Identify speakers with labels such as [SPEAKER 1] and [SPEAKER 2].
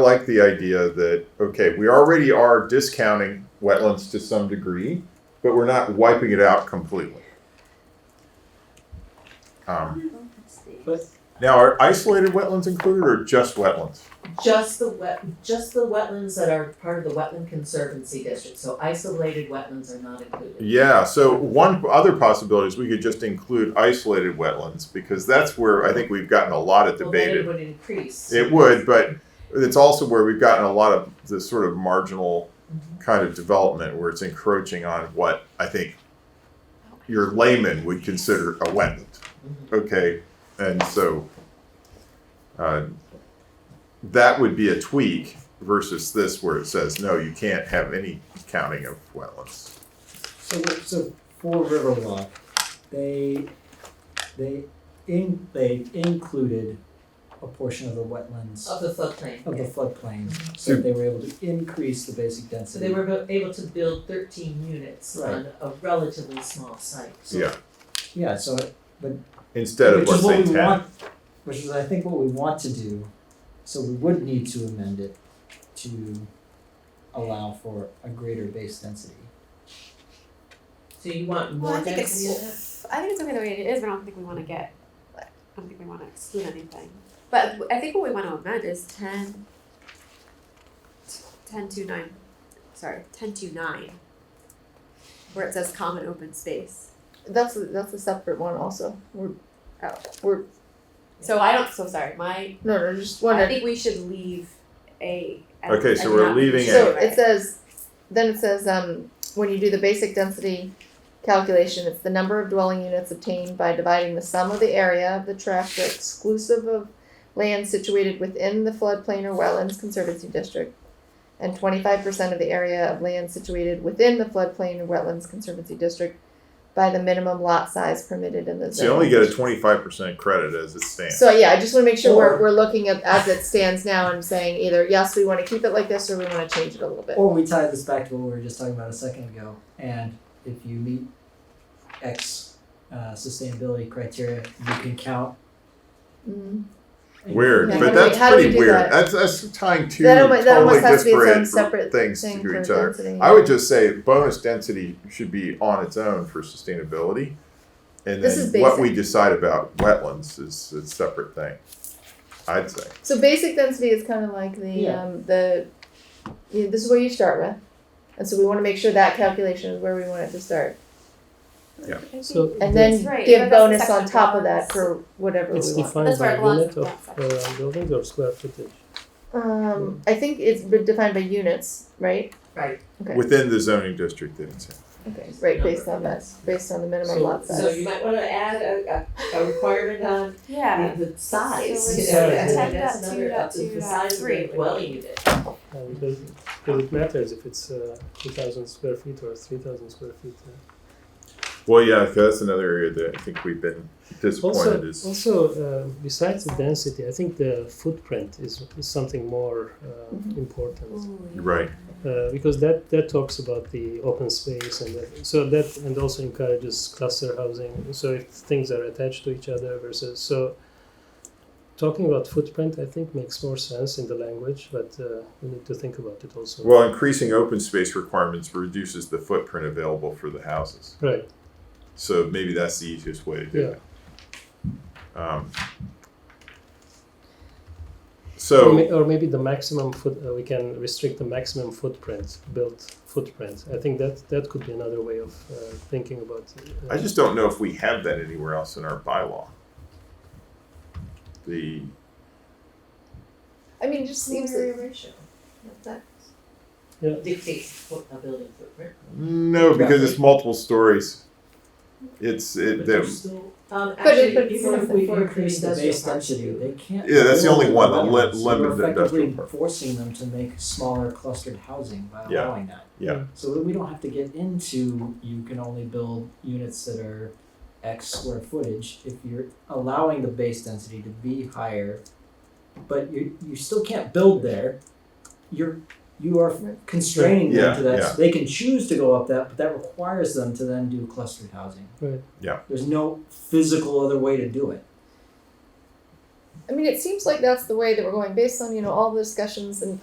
[SPEAKER 1] I like the idea that, okay, we already are discounting wetlands to some degree, but we're not wiping it out completely. Um,
[SPEAKER 2] But-
[SPEAKER 1] now, are isolated wetlands included or just wetlands?
[SPEAKER 3] Just the wet, just the wetlands that are part of the Wetland Conservancy District, so isolated wetlands are not included.
[SPEAKER 1] Yeah, so one other possibility is we could just include isolated wetlands because that's where I think we've gotten a lot of
[SPEAKER 3] Well, then
[SPEAKER 1] debated.
[SPEAKER 3] it would increase.
[SPEAKER 1] It would, but it's also where we've gotten a lot of this sort of marginal kind of development where it's encroaching on what I think your layman would consider a wetland.
[SPEAKER 2] Mm-hmm.
[SPEAKER 3] Mhm.
[SPEAKER 1] Okay, and so uh, that would be a tweak versus this where it says, no, you can't have any counting of wetlands.
[SPEAKER 2] So, so for Riverwalk, they, they in, they included a portion of the wetlands
[SPEAKER 3] Of the floodplain.
[SPEAKER 2] of the floodplain, so that they were able to increase the basic
[SPEAKER 3] So
[SPEAKER 2] density.
[SPEAKER 3] they were bo- able to build thirteen units
[SPEAKER 2] Right.
[SPEAKER 3] on a relatively small site.
[SPEAKER 1] Yeah,
[SPEAKER 2] Yeah, so, it-
[SPEAKER 1] instead of
[SPEAKER 2] which
[SPEAKER 1] let's
[SPEAKER 2] is
[SPEAKER 1] say
[SPEAKER 2] what we
[SPEAKER 1] ten.
[SPEAKER 2] want, which is I think what we want to do, so we would need to amend it to allow for a greater base density.
[SPEAKER 3] So you want
[SPEAKER 4] Well, I
[SPEAKER 3] more
[SPEAKER 4] think
[SPEAKER 3] density of that?
[SPEAKER 4] it's, I think it's okay the way it is, but I don't think we wanna get, I don't think we wanna exclude anything. But I think what we wanna amend is ten, ten to nine, sorry, ten to nine. Where it says common open space.
[SPEAKER 5] That's a, that's a separate one also. We're
[SPEAKER 4] Oh.
[SPEAKER 5] we're
[SPEAKER 4] So I don't, so sorry, my,
[SPEAKER 5] no no just one.
[SPEAKER 4] I think we should leave a. I-
[SPEAKER 1] Okay,
[SPEAKER 4] I
[SPEAKER 1] so
[SPEAKER 4] do
[SPEAKER 1] we're
[SPEAKER 4] not-
[SPEAKER 1] leaving
[SPEAKER 5] so
[SPEAKER 4] Right.
[SPEAKER 5] it says then it says um when you do the basic density calculation, it's the number of dwelling units obtained by dividing the sum of the area of the tract exclusive of land situated within the floodplain or wetlands conservancy district and twenty five percent of the area of land situated within the floodplain or wetlands conservancy district by the minimum lot size permitted in the
[SPEAKER 1] So
[SPEAKER 5] zone.
[SPEAKER 1] you only get a twenty-five percent credit as it stands.
[SPEAKER 5] So yeah, I just wanna make sure
[SPEAKER 2] Or-
[SPEAKER 5] we're, we're looking at, as it stands now and saying either, yes, we wanna keep it like this, or we wanna change it a little bit.
[SPEAKER 2] Or we tie this back to what we were just talking about a second ago, and if you meet X uh, sustainability criteria, you can count.
[SPEAKER 5] Mhm.
[SPEAKER 1] Weird,
[SPEAKER 5] Yeah,
[SPEAKER 1] but
[SPEAKER 5] how do we-
[SPEAKER 1] that's
[SPEAKER 5] how do we
[SPEAKER 1] pretty
[SPEAKER 5] do
[SPEAKER 1] weird.
[SPEAKER 5] that?
[SPEAKER 1] That's that's tying two
[SPEAKER 5] That almost, that
[SPEAKER 1] totally
[SPEAKER 5] almost has to be its own
[SPEAKER 1] disparate
[SPEAKER 5] separate
[SPEAKER 1] things
[SPEAKER 5] thing
[SPEAKER 1] to
[SPEAKER 5] for
[SPEAKER 1] each other.
[SPEAKER 5] density.
[SPEAKER 1] I would just say bonus density should be on its own for sustainability. And
[SPEAKER 5] This is
[SPEAKER 1] then what we
[SPEAKER 5] basic.
[SPEAKER 1] decide about wetlands is a separate thing, I'd say.
[SPEAKER 5] So basic density is kinda like the,
[SPEAKER 2] Yeah.
[SPEAKER 5] um, the, you this is where you start with. And so we wanna make sure that calculation is where we want it to start,
[SPEAKER 6] So
[SPEAKER 5] and
[SPEAKER 4] That's
[SPEAKER 5] then
[SPEAKER 4] right,
[SPEAKER 5] give
[SPEAKER 4] but that's the
[SPEAKER 5] bonus on
[SPEAKER 4] section
[SPEAKER 5] top of
[SPEAKER 4] balance.
[SPEAKER 5] that for whatever we want.
[SPEAKER 6] it's
[SPEAKER 4] That's where
[SPEAKER 6] defined by
[SPEAKER 4] it belongs,
[SPEAKER 6] unit of
[SPEAKER 4] that
[SPEAKER 6] uh, buildings or square footage?
[SPEAKER 5] Um, I think it's been defined by units, right?
[SPEAKER 3] Right,
[SPEAKER 5] Okay.
[SPEAKER 1] Within the zoning district that it's in.
[SPEAKER 5] Okay, right, based on that, based on the minimum
[SPEAKER 6] So-
[SPEAKER 5] lot size.
[SPEAKER 3] so you might wanna add a, a, a requirement on
[SPEAKER 4] Yeah.
[SPEAKER 3] the the size,
[SPEAKER 4] So
[SPEAKER 3] you
[SPEAKER 6] it's
[SPEAKER 3] know,
[SPEAKER 6] like
[SPEAKER 3] that's
[SPEAKER 6] ten
[SPEAKER 3] that's
[SPEAKER 4] dot two
[SPEAKER 3] another,
[SPEAKER 4] dot
[SPEAKER 3] that's the
[SPEAKER 4] two dot
[SPEAKER 3] size of
[SPEAKER 4] three.
[SPEAKER 3] the dwelling unit.
[SPEAKER 6] Uh, because, because it matters if it's uh, 2,000 square feet or 3,000 square feet. uh,
[SPEAKER 1] Well, yeah, 'cause that's another area that I think we've been disappointed
[SPEAKER 6] Also,
[SPEAKER 1] is,
[SPEAKER 6] also uh, besides the density, I think the footprint is, is something more uh,
[SPEAKER 4] Mm-hmm.
[SPEAKER 5] Mhm.
[SPEAKER 6] important
[SPEAKER 1] you're right,
[SPEAKER 6] uh, because that, that talks about the open space and that, so that and also encourages cluster housing. So if things are attached to each other versus so. Talking about footprint, I think makes more sense in the language, but uh, we need to think about it also.
[SPEAKER 1] well, increasing open space requirements reduces the footprint available for the houses.
[SPEAKER 6] right.
[SPEAKER 1] So maybe that's the easiest way to do it. Um,
[SPEAKER 6] or,
[SPEAKER 1] So.
[SPEAKER 6] may, or maybe the maximum foot uh, we can restrict the maximum footprint built footprint i think that that could be another way of uh, thinking about uh,
[SPEAKER 1] I just don't know if we have that anywhere else in our bylaw. The,
[SPEAKER 5] I mean, it just seems that
[SPEAKER 3] ratio.
[SPEAKER 5] that-
[SPEAKER 3] Dictates what a building footprint.
[SPEAKER 1] no, because it's multiple stories. It's, it, the,
[SPEAKER 3] Um,
[SPEAKER 5] But it-
[SPEAKER 3] actually,
[SPEAKER 5] but
[SPEAKER 3] even
[SPEAKER 2] Even
[SPEAKER 3] if we increase
[SPEAKER 2] the base
[SPEAKER 3] industrial parks,
[SPEAKER 2] density, they can't.
[SPEAKER 1] Yeah, that's the
[SPEAKER 2] build
[SPEAKER 1] only one, the li-
[SPEAKER 2] wetlands.
[SPEAKER 1] limited
[SPEAKER 2] We're
[SPEAKER 1] industrial
[SPEAKER 2] effectively
[SPEAKER 1] park.
[SPEAKER 2] forcing them to make smaller clustered housing by
[SPEAKER 1] Yeah.
[SPEAKER 2] allowing that.
[SPEAKER 1] Yeah.
[SPEAKER 2] So that we don't have to get into, you can only build units that are X square footage if you're allowing the base density to be higher. But you, you still can't build there, you're, you are constraining
[SPEAKER 1] Yeah,
[SPEAKER 2] them to
[SPEAKER 1] yeah.
[SPEAKER 2] that, they can choose to go up that, but that requires them to then do clustered housing.
[SPEAKER 6] Right.
[SPEAKER 1] Yeah.
[SPEAKER 2] There's no physical other way to do it.
[SPEAKER 5] I mean, it seems like that's the way that we're going based on, you know, all the discussions and